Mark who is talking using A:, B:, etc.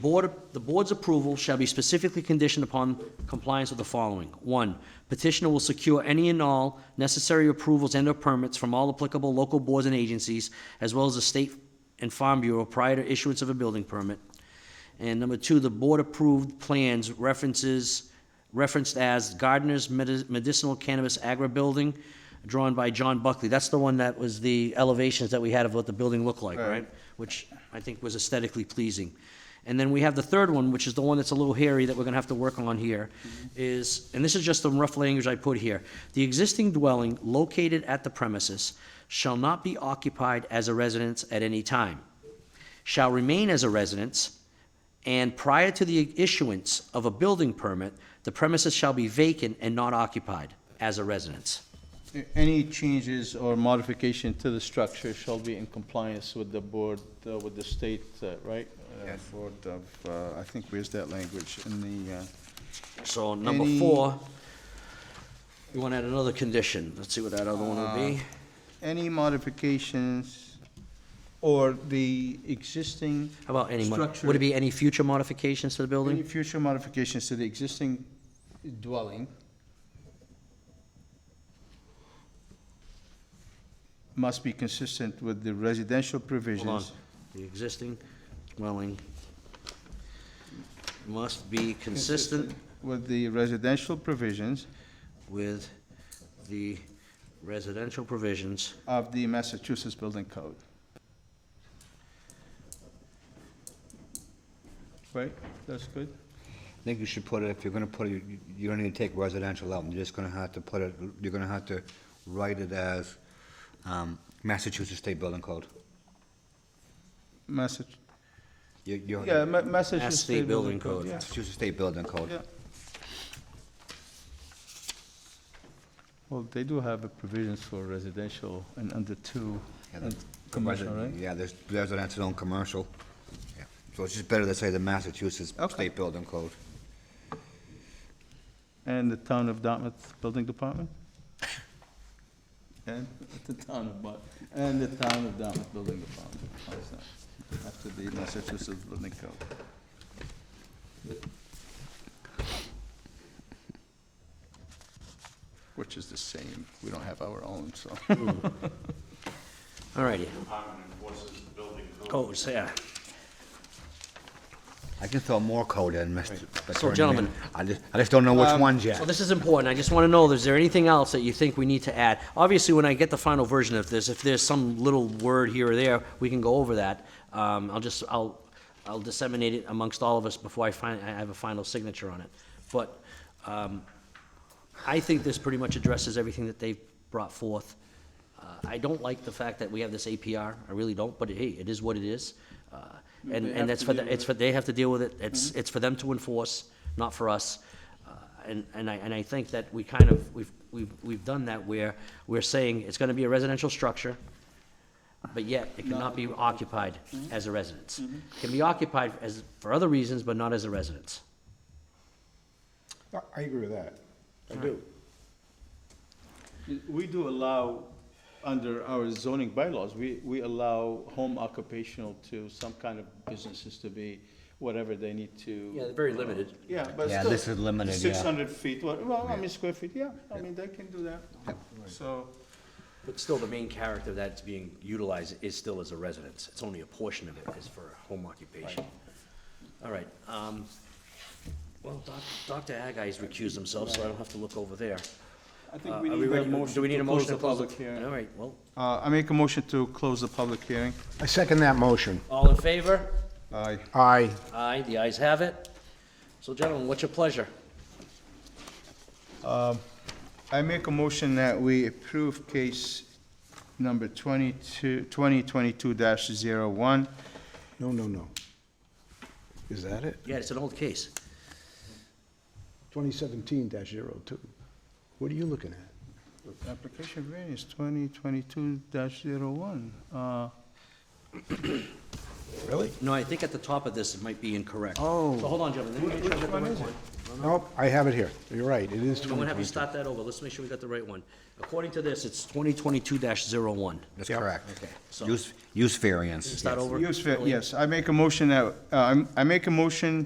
A: board, the board's approval shall be specifically conditioned upon compliance with the following. One, petitioner will secure any and all necessary approvals and/or permits from all applicable local boards and agencies, as well as the State and Farm Bureau prior to issuance of a building permit. And number two, the board-approved plans references, referenced as Gardner's Medi- Medicinal Cannabis Agri Building, drawn by John Buckley. That's the one that was the elevations that we had of what the building looked like, right? Which I think was aesthetically pleasing. And then we have the third one, which is the one that's a little hairy that we're gonna have to work on here, is, and this is just the rough language I put here. The existing dwelling located at the premises shall not be occupied as a residence at any time, shall remain as a residence, and prior to the issuance of a building permit, the premises shall be vacant and not occupied as a residence.
B: Any changes or modification to the structure shall be in compliance with the board, uh, with the state, uh, right? Uh,
C: Uh, Board of, uh, I think, where's that language in the, uh,
A: So number
C: Any-
A: four, we want to add another condition. Let's see what that other one would be.
C: any modifications,
B: Or the existing,
A: How about any, mo-
B: structure-
A: would it be any future modifications to the
C: any
A: building?
C: future modifications to the existing dwelling must be consistent with the residential
A: Hold on.
C: provisions.
A: The existing dwelling must be consistent
C: With the residential provisions
A: with the residential provisions
C: of the Massachusetts Building Code.
B: right, that's good?
D: I think you should put it, if you're gonna put it, you- you don't need to take residential out, you're just gonna have to put it, you're gonna have to write it as um, Massachusetts State Building Code.
C: Massa,
D: You- you-
B: Yeah, Ma- Massachusetts.
A: State Building Code.
B: yeah.
D: Massachusetts State Building
C: yeah.
D: Code.
B: Well, they do have a provisions for residential and under two,
D: Yeah,
B: and
D: the-
B: commercial,
D: resi-
B: right?
D: Yeah, there's residential and commercial. Yeah. So it's just better to say the Massachusetts
C: Okay.
D: State Building Code.
B: And the town of Dartmouth Building Department? And the town of, Bar- and the town of Dartmouth Building Department, how's that? After the Massachusetts Building Code.
C: Which is the same, we don't have our own, so.
A: All righty.
E: department enforces the building code.
A: Codes, yeah.
D: I can throw more code in, Mr.
A: So,
D: Attorney.
A: gentlemen-
D: I just, I just don't know which ones
A: So
D: yet.
A: this is important. I just want to know, is there anything else that you think we need to add? Obviously, when I get the final version of this, if there's some little word here or there, we can go over that. Um, I'll just, I'll, I'll disseminate it amongst all of us before I find, I have a final signature on it. But, um, I think this pretty much addresses everything that they've brought forth. Uh, I don't like the fact that we have this APR. I really don't, but hey, it is what it is. Uh, And,
B: They
A: and
B: have
A: that's
B: to
A: for, the-
B: deal with Mm-hmm.
A: it's for, they have to deal with it. It's, it's for them to enforce, not for us. Uh, And, and I, and I think that we kind of, we've, we've, we've done that where we're saying it's gonna be a residential structure, but yet it cannot be occupied
B: Mm-hmm.
A: as a residence. Can be occupied as, for other reasons, but not as a residence.
F: I- I agree with that. I do.
B: We do allow, under our zoning bylaws, we, we allow home occupational to some kind of businesses to be whatever they need to.
A: very limited.
B: Yeah, but
D: Yeah,
B: still.
D: this is limited, yeah.
B: Six hundred feet, what- well, I mean, square feet, yeah, I mean, they can do that, so.
A: But still, the main character that's being utilized is still as a residence. It's only a portion of it is for home occupation. All right, um, well, Doc- Dr. Agai's recused himself, so I don't have to look over there.
B: I
A: Uh,
B: think we
A: are
B: need a
A: ready-
B: motion
A: Do we need a
B: to close
A: motion
B: the public
A: All
B: hearing.
A: right, well,
C: Uh, I make a motion to close the public hearing.
F: I second that motion.
A: all in favor?
C: Aye.
F: Aye.
A: Aye, the ayes have it. So gentlemen, what's your pleasure?
C: I make a motion that we approve case number 22, 2022-01.
F: No, no, no. Is that it?
A: Yeah, it's an old case.
F: 2017-02. What are you looking at?
C: Application variance 2022-01. Uh,
F: Really?
A: No, I think at the top of this, it might be incorrect.
F: Oh.
A: So hold on, gentlemen. let me make sure I got the right one.
F: Nope, I have it here. You're right, it is
A: I'm gonna have you
F: 2022.
A: start that over. Let's make sure we got the right one. According to this, it's twenty twenty-two dash zero one.
D: That's
F: Yep.
D: correct.
A: So-
D: Use, use variance.
A: Start
D: yes.
A: over?
C: Use,
A: Elliot?
C: yes, I make a motion that, uh, I'm- I make a motion